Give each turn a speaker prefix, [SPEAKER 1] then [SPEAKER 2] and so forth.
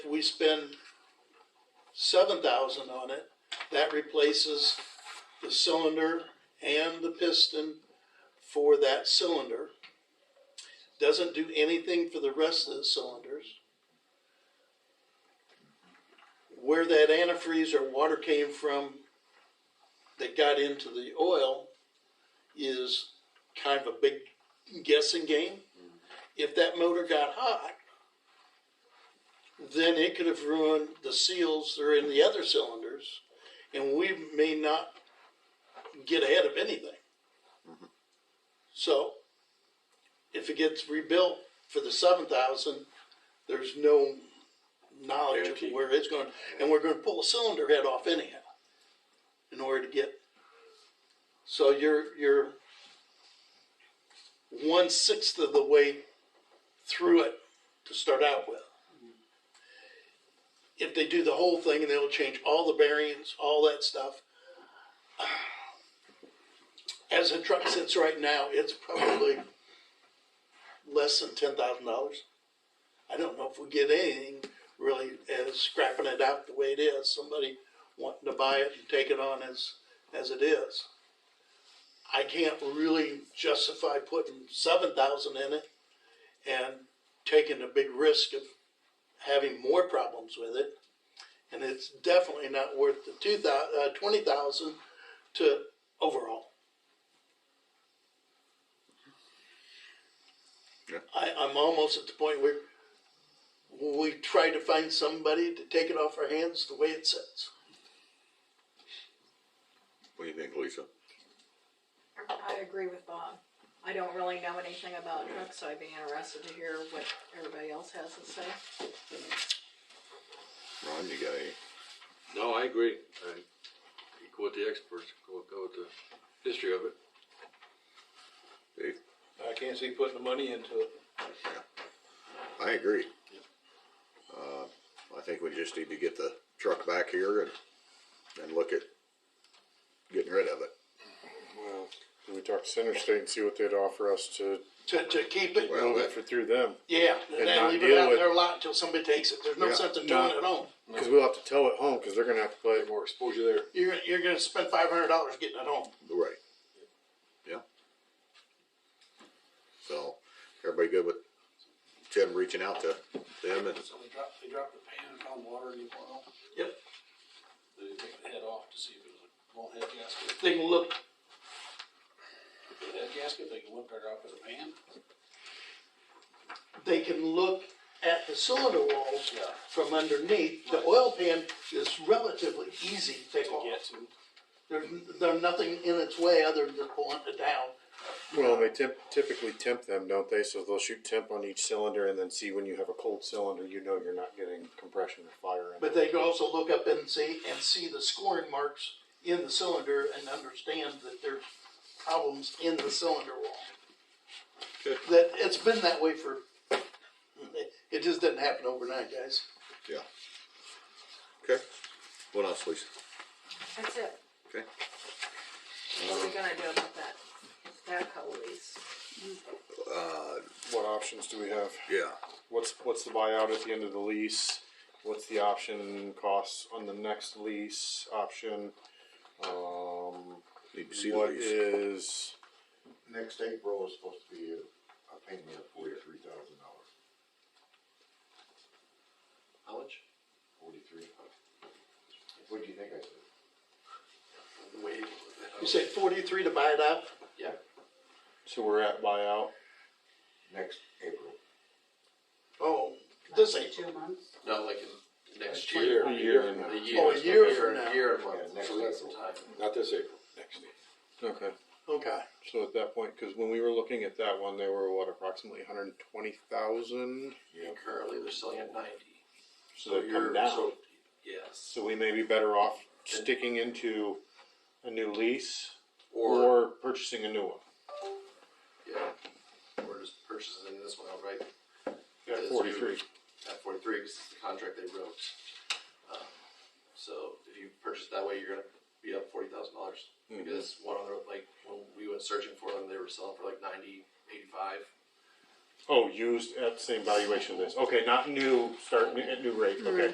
[SPEAKER 1] we spend seven thousand on it, that replaces the cylinder and the piston for that cylinder. Doesn't do anything for the rest of the cylinders. Where that antifreeze or water came from that got into the oil is kind of a big guessing game. If that motor got hot, then it could have ruined the seals that are in the other cylinders, and we may not get ahead of anything. So, if it gets rebuilt for the seven thousand, there's no knowledge of
[SPEAKER 2] Guarantee.
[SPEAKER 1] where it's going, and we're gonna pull a cylinder head off anyhow in order to get. So you're, you're one sixth of the way through it to start out with. If they do the whole thing and they'll change all the bearings, all that stuff. As the truck sits right now, it's probably less than ten thousand dollars. I don't know if we get anything really as scrapping it out the way it is, somebody wanting to buy it and take it on as, as it is. I can't really justify putting seven thousand in it and taking a big risk of having more problems with it. And it's definitely not worth the two thousand, uh, twenty thousand to overall.
[SPEAKER 2] Yeah.
[SPEAKER 1] I, I'm almost at the point where we try to find somebody to take it off our hands the way it sits.
[SPEAKER 2] What do you think, Lisa?
[SPEAKER 3] I agree with Bob. I don't really know anything about trucks, so I'd be interested to hear what everybody else has to say.
[SPEAKER 2] Ron, you got any?
[SPEAKER 4] No, I agree. I you quote the experts, quote, go with the history of it.
[SPEAKER 2] Dave?
[SPEAKER 5] I can't see putting the money into it.
[SPEAKER 2] I agree. Uh, I think we just need to get the truck back here and, and look at getting rid of it.
[SPEAKER 6] Well, can we talk to Center State and see what they'd offer us to
[SPEAKER 1] To, to keep it,
[SPEAKER 2] Well,
[SPEAKER 6] move it
[SPEAKER 2] that-
[SPEAKER 6] for through them?
[SPEAKER 1] yeah, and then
[SPEAKER 6] not
[SPEAKER 1] leave it
[SPEAKER 6] deal
[SPEAKER 1] out in
[SPEAKER 6] with-
[SPEAKER 1] their lot until somebody takes it, there's no
[SPEAKER 2] Yeah.
[SPEAKER 1] sense in
[SPEAKER 6] No.
[SPEAKER 1] doing it home.
[SPEAKER 6] Because we'll have to tow it home because they're going to have to play
[SPEAKER 5] More exposure there.
[SPEAKER 1] You're, you're gonna spend five hundred dollars getting it home.
[SPEAKER 2] right. Yeah. So, everybody good with Tim reaching out to them and,
[SPEAKER 5] So they dropped, they dropped the pan and found water in the oil.
[SPEAKER 1] Yep.
[SPEAKER 5] They didn't take the head off to see if it was a blown head gasket.
[SPEAKER 1] They can look,
[SPEAKER 5] If it had a gasket, they can look right off at the pan.
[SPEAKER 1] they can look at the cylinder walls
[SPEAKER 5] Yeah.
[SPEAKER 1] from underneath. The
[SPEAKER 5] Right.
[SPEAKER 1] oil pan is relatively easy to take off.
[SPEAKER 5] Get to.
[SPEAKER 1] There's, there's nothing in its way other than just pulling it down.
[SPEAKER 6] Well, they temp- typically temp them, don't they? So they'll shoot temp on each cylinder and then see when you have a cold cylinder, you know you're not getting compression or fire. In
[SPEAKER 1] But
[SPEAKER 6] it.
[SPEAKER 1] they can also look up and see, and see the scoring marks in the cylinder and understand that there's problems in the cylinder wall.
[SPEAKER 2] Okay.
[SPEAKER 1] That, it's been that way for, it just didn't happen overnight, guys.
[SPEAKER 2] yeah. Okay, what else, Lisa?
[SPEAKER 3] That's it.
[SPEAKER 2] Okay,
[SPEAKER 3] What are we gonna do about that? That co lease?
[SPEAKER 6] What options do we have?
[SPEAKER 2] yeah,
[SPEAKER 6] What's what's the buyout at the end of the lease? What's the option costs on the next lease option? Um,
[SPEAKER 2] need to see the
[SPEAKER 6] what
[SPEAKER 2] lease.
[SPEAKER 6] is
[SPEAKER 7] Next April is supposed to be a, a payment of forty-three thousand dollars.
[SPEAKER 4] How much?
[SPEAKER 7] Forty-three? What do you think I said?
[SPEAKER 4] Wait.
[SPEAKER 1] You said forty-three to buy it out?
[SPEAKER 7] Yeah.
[SPEAKER 6] so we're at buyout?
[SPEAKER 7] Next April.
[SPEAKER 1] Oh, this ain't,
[SPEAKER 3] Two months?
[SPEAKER 4] Not like in next
[SPEAKER 1] Next
[SPEAKER 4] year.
[SPEAKER 6] A year and a-
[SPEAKER 4] A year.
[SPEAKER 1] Oh, a year from now.
[SPEAKER 4] A year and a
[SPEAKER 7] Yeah,
[SPEAKER 4] month,
[SPEAKER 7] next
[SPEAKER 4] so that's some
[SPEAKER 7] April.
[SPEAKER 4] time.
[SPEAKER 5] Not this April, next April.
[SPEAKER 6] Okay.
[SPEAKER 1] okay.
[SPEAKER 6] So at that point, because when we were looking at that one, they were what approximately 120,000.
[SPEAKER 4] And currently, they're selling at ninety.
[SPEAKER 6] So they've come down. So,
[SPEAKER 4] so- Yes.
[SPEAKER 6] we may be better off sticking into a new lease or,
[SPEAKER 4] Or,
[SPEAKER 6] purchasing a new one
[SPEAKER 4] yeah, we're just purchasing this one outright
[SPEAKER 6] at
[SPEAKER 4] Yes,
[SPEAKER 6] 43.
[SPEAKER 4] at forty-three, because it's the contract they wrote. Um, So if you purchase that way, you're gonna be up forty thousand dollars. Because one other, like, when we went searching for them, they were selling for like ninety, eighty-five.
[SPEAKER 6] Oh, used at the same valuation as this, okay, not new, start new- at new rate, okay.